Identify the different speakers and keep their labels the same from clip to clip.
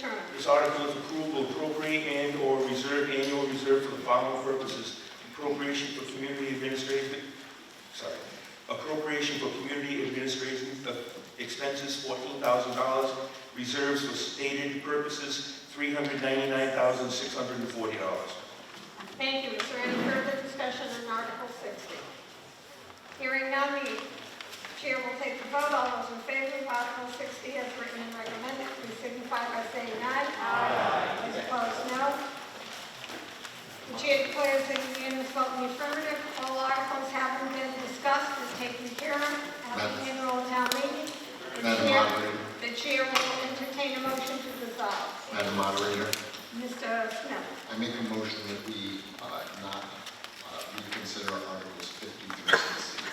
Speaker 1: Turner.
Speaker 2: This article, if approved, will appropriate and/or reserve annual reserve for the following purposes. Appropriation for community administration, sorry, appropriation for community administration of expenses, fourteen thousand dollars. Reserves for stated purposes, three hundred ninety-nine thousand, six hundred and forty dollars.
Speaker 1: Thank you. Is there any further discussion on Article 60? Hearing none, the chair will take the vote. All those in favor of Article 60 as written and recommended, please signify by saying aye. Aye. Those opposed, no. The chair declares a unanimous vote in the affirmative. All articles having been discussed and taken care of at the annual town meeting. The
Speaker 3: Madam
Speaker 1: chair-
Speaker 3: Moderator.
Speaker 1: The chair will entertain a motion to dissolve.
Speaker 3: Madam Moderator,
Speaker 1: Mr. Smith?
Speaker 3: I make a motion that we uh, not uh, reconsider Articles 50 through 60.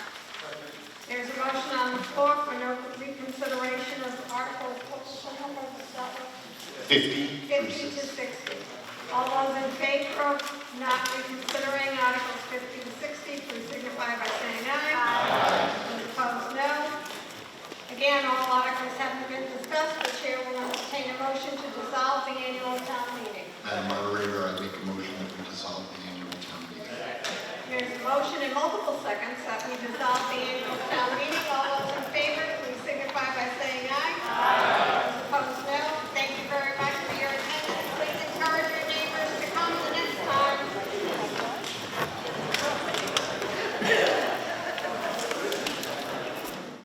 Speaker 1: There's a motion on the floor for no reconsideration of Article
Speaker 3: 50 through
Speaker 1: 50 to
Speaker 3: 60.
Speaker 1: 60. All those in favor of not reconsidering Articles 50 to 60, please signify by saying aye. Aye. Opposed, no. Again, all articles haven't been discussed. The chair will entertain a motion to dissolve the annual town meeting.
Speaker 3: Madam Moderator, I make a motion that we dissolve the annual town meeting.
Speaker 1: There's a motion in multiple seconds that we dissolve the annual town meeting.